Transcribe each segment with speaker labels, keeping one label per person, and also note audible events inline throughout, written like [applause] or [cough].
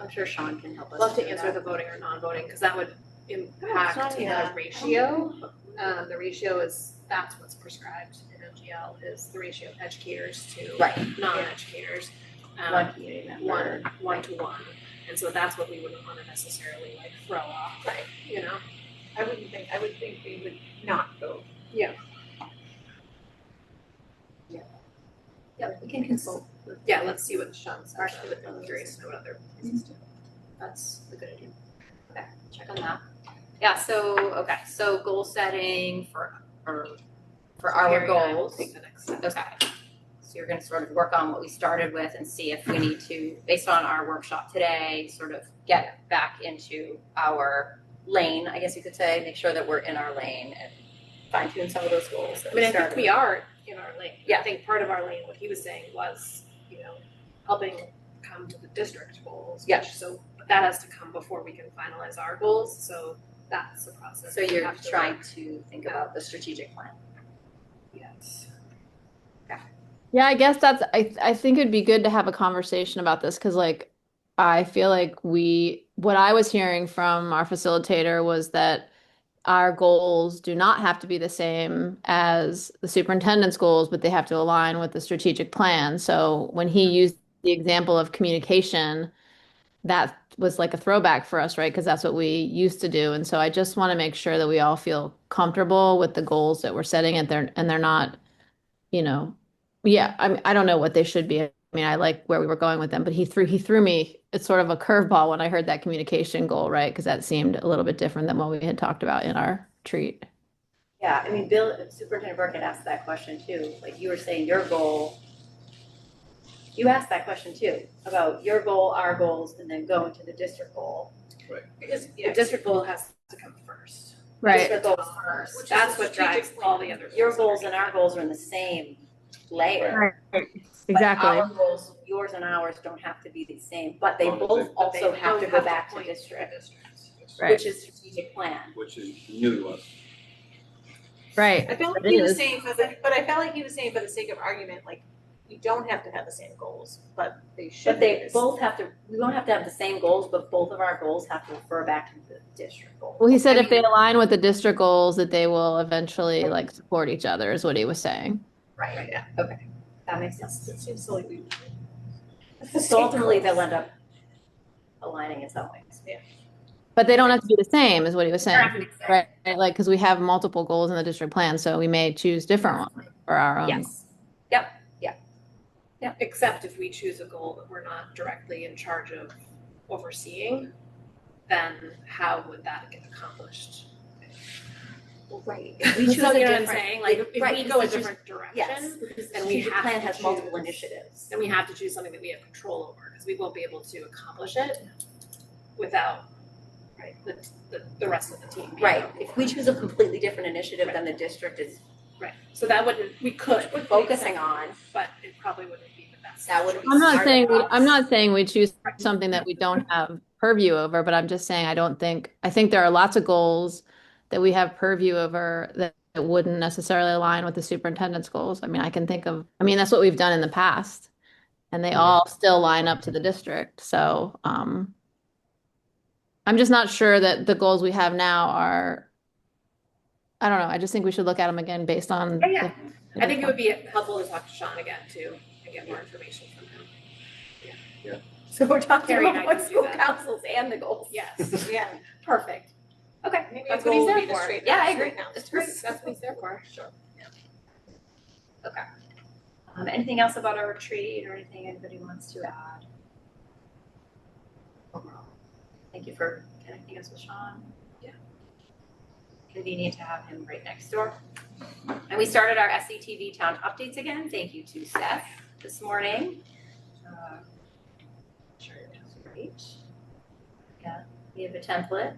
Speaker 1: I'm sure Sean can help us.
Speaker 2: love to
Speaker 1: with
Speaker 2: answer
Speaker 1: that.
Speaker 2: the voting or non-voting, because that would
Speaker 1: No, it's
Speaker 2: impact
Speaker 1: not
Speaker 2: the
Speaker 1: that.
Speaker 2: ratio. Um, the ratio is, that's what's prescribed in MGL, is the ratio of educators to
Speaker 1: Right,
Speaker 2: non-educators. um,
Speaker 1: one community member.
Speaker 2: one, one to one. And so that's what we wouldn't wanna necessarily like throw off, right, you know?
Speaker 3: I wouldn't think, I would think we would not go.
Speaker 1: Yeah, we can consult with
Speaker 2: Yeah, let's see what Sean says,
Speaker 1: Actually,
Speaker 2: but
Speaker 1: with
Speaker 2: I'm
Speaker 1: others.
Speaker 2: curious to know what other
Speaker 1: places
Speaker 2: places do.
Speaker 1: That's a good idea. Okay, check on that. Yeah, so, okay, so goal setting for, or, for our
Speaker 2: Very nice.
Speaker 1: goals.
Speaker 2: Take the next step.
Speaker 1: Okay. So you're gonna sort of work on what we started with and see if we need to, based on our workshop today, sort of get back into our lane, I guess you could say, make sure that we're in our lane and fine tune some of those goals that
Speaker 2: I
Speaker 1: we
Speaker 2: mean, I
Speaker 1: started.
Speaker 2: think we are in our lane. I
Speaker 1: Yeah.
Speaker 2: think part of our lane, what he was saying was, you know, helping come to the district goals.
Speaker 1: Yeah.
Speaker 2: which- So but that has to come before we can finalize our goals, so that's the process.
Speaker 1: So
Speaker 2: we
Speaker 1: you're
Speaker 2: have to
Speaker 1: trying
Speaker 2: work.
Speaker 1: to think about the strategic plan.
Speaker 2: Yes.
Speaker 4: Yeah, I guess that's I th- I think it'd be good to have a conversation about this because like I feel like we what I was hearing from our facilitator was that our goals do not have to be the same as the superintendent's goals, but they have to align with the strategic plan. So when he used the example of communication, that was like a throwback for us, right? Because that's what we used to do. And so I just want to make sure that we all feel comfortable with the goals that we're setting and they're and they're not, you know, yeah, I mean, I don't know what they should be. I mean, I like where we were going with them, but he threw he threw me it's sort of a curveball when I heard that communication goal, right? Because that seemed a little bit different than what we had talked about in our treat.
Speaker 1: Yeah, I mean, Bill, Superintendent Burke had asked that question too, like you were saying your goal. You asked that question too, about your goal, our goals, and then going to the district goal.
Speaker 2: Because the
Speaker 3: yeah.
Speaker 2: district goal has to come first.
Speaker 1: District goal
Speaker 2: Which
Speaker 1: first,
Speaker 2: is
Speaker 1: that's
Speaker 2: the
Speaker 1: what
Speaker 2: strategic
Speaker 1: drives
Speaker 2: all the other
Speaker 1: your
Speaker 2: goals
Speaker 1: goals
Speaker 2: already.
Speaker 1: and our goals are in the same layer. But
Speaker 4: Exactly.
Speaker 1: our goals, yours and ours don't have to be the same, but they
Speaker 5: Long as
Speaker 1: both
Speaker 5: they-
Speaker 2: But they
Speaker 1: also have
Speaker 2: don't
Speaker 1: to go back to
Speaker 2: point
Speaker 1: district,
Speaker 2: district.
Speaker 4: Right.
Speaker 1: which is strategic plan.
Speaker 5: which is new to us.
Speaker 4: Right.
Speaker 3: I felt like
Speaker 4: It
Speaker 3: he was
Speaker 4: is.
Speaker 3: saying, for the- but I felt like he was saying for the sake of argument, like, you don't have to have the same goals, but they should
Speaker 1: But
Speaker 3: be
Speaker 1: they
Speaker 3: this-
Speaker 1: both have to, we won't have to have the same goals, but both of our goals have to refer back to the district goal.
Speaker 4: Well, he said
Speaker 1: I
Speaker 4: if they align with the district goals, that they will eventually like support each other is what he was saying.
Speaker 1: Right,
Speaker 3: Yeah.
Speaker 1: okay, that makes sense.
Speaker 3: It seems silly. we-
Speaker 1: So ultimately, they'll end up aligning in some ways.
Speaker 4: But they don't have to be the same is what he was saying.
Speaker 1: Correct.
Speaker 4: Right. right? Like, because we have multiple goals in the district plan, so we may choose different ones for our own.
Speaker 1: Yes,
Speaker 2: Except if we choose a goal that we're not directly in charge of overseeing, then how would that get accomplished?
Speaker 1: right.
Speaker 2: [laughs] We
Speaker 1: choose a
Speaker 2: You know what I'm
Speaker 1: different-
Speaker 2: saying, like, if
Speaker 1: right,
Speaker 2: we go a
Speaker 1: because it's
Speaker 2: different
Speaker 1: Yes,
Speaker 2: direction,
Speaker 1: because the
Speaker 2: and we
Speaker 1: strategic
Speaker 2: have
Speaker 1: plan
Speaker 2: to
Speaker 1: has multiple
Speaker 2: choose-
Speaker 1: initiatives.
Speaker 2: then we have to choose something that we have control over, because we won't be able to accomplish it without, right, the, the, the rest of the team being
Speaker 1: Right,
Speaker 2: on
Speaker 1: if
Speaker 2: board.
Speaker 1: we choose a completely different initiative than the district is [laughs]
Speaker 2: So that wouldn't, we could.
Speaker 1: focusing on,
Speaker 2: But it probably wouldn't be the best.
Speaker 1: That wouldn't be
Speaker 4: I'm not
Speaker 1: Part of
Speaker 4: saying we,
Speaker 1: us.
Speaker 4: I'm not saying we choose something that we don't have purview over, but I'm just saying I don't think I think there are lots of goals that we have purview over that, that wouldn't necessarily align with the superintendent's goals. I mean, I can think of I mean that's what we've done in the past, and they all still line up to the district. So um, I'm just not sure that the goals we have now are. I don't know. I just think we should look at them again based on.
Speaker 2: Oh, Yeah, yeah.
Speaker 4: the-
Speaker 2: I think it would be helpful to talk to Sean again too, and get more information from
Speaker 1: [laughs]
Speaker 2: him.
Speaker 1: so we're talking
Speaker 2: Carrie and
Speaker 1: about
Speaker 2: I can
Speaker 1: both
Speaker 2: do
Speaker 1: school
Speaker 2: that.
Speaker 1: councils and the goals. [laughs]
Speaker 2: Yes,
Speaker 3: Yeah.
Speaker 1: Perfect. Okay,
Speaker 3: Maybe
Speaker 1: that's
Speaker 3: a
Speaker 1: what he's
Speaker 3: goal would
Speaker 1: there
Speaker 3: be to
Speaker 1: for.
Speaker 3: straighten
Speaker 1: Yeah,
Speaker 3: out-
Speaker 1: I agree.
Speaker 3: straighten out.
Speaker 1: That's
Speaker 2: great,
Speaker 1: great.
Speaker 2: that's what he's there for. Sure.
Speaker 1: Um, anything else about our retreat or anything anybody wants to add? Overall, Thank you for connecting us with Sean. Yeah. Convenient to have him right next door. And we started our SCTV town updates again. Thank you to Seth this morning. Uh, Sure, it was great. Yeah, we have a template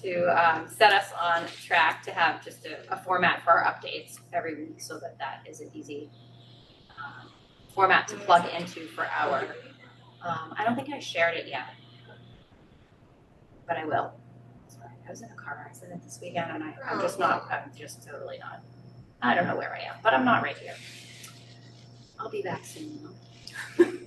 Speaker 1: to um, set us on track to have just a, a format for our updates every week so that that is an easy um, format to plug into for our, um, I don't think I shared it yet. But I will. Sorry, I was in a car accident this weekend and I, I'm just not, I'm just totally not, I don't know where I am, but I'm not right here. I'll be back soon. though.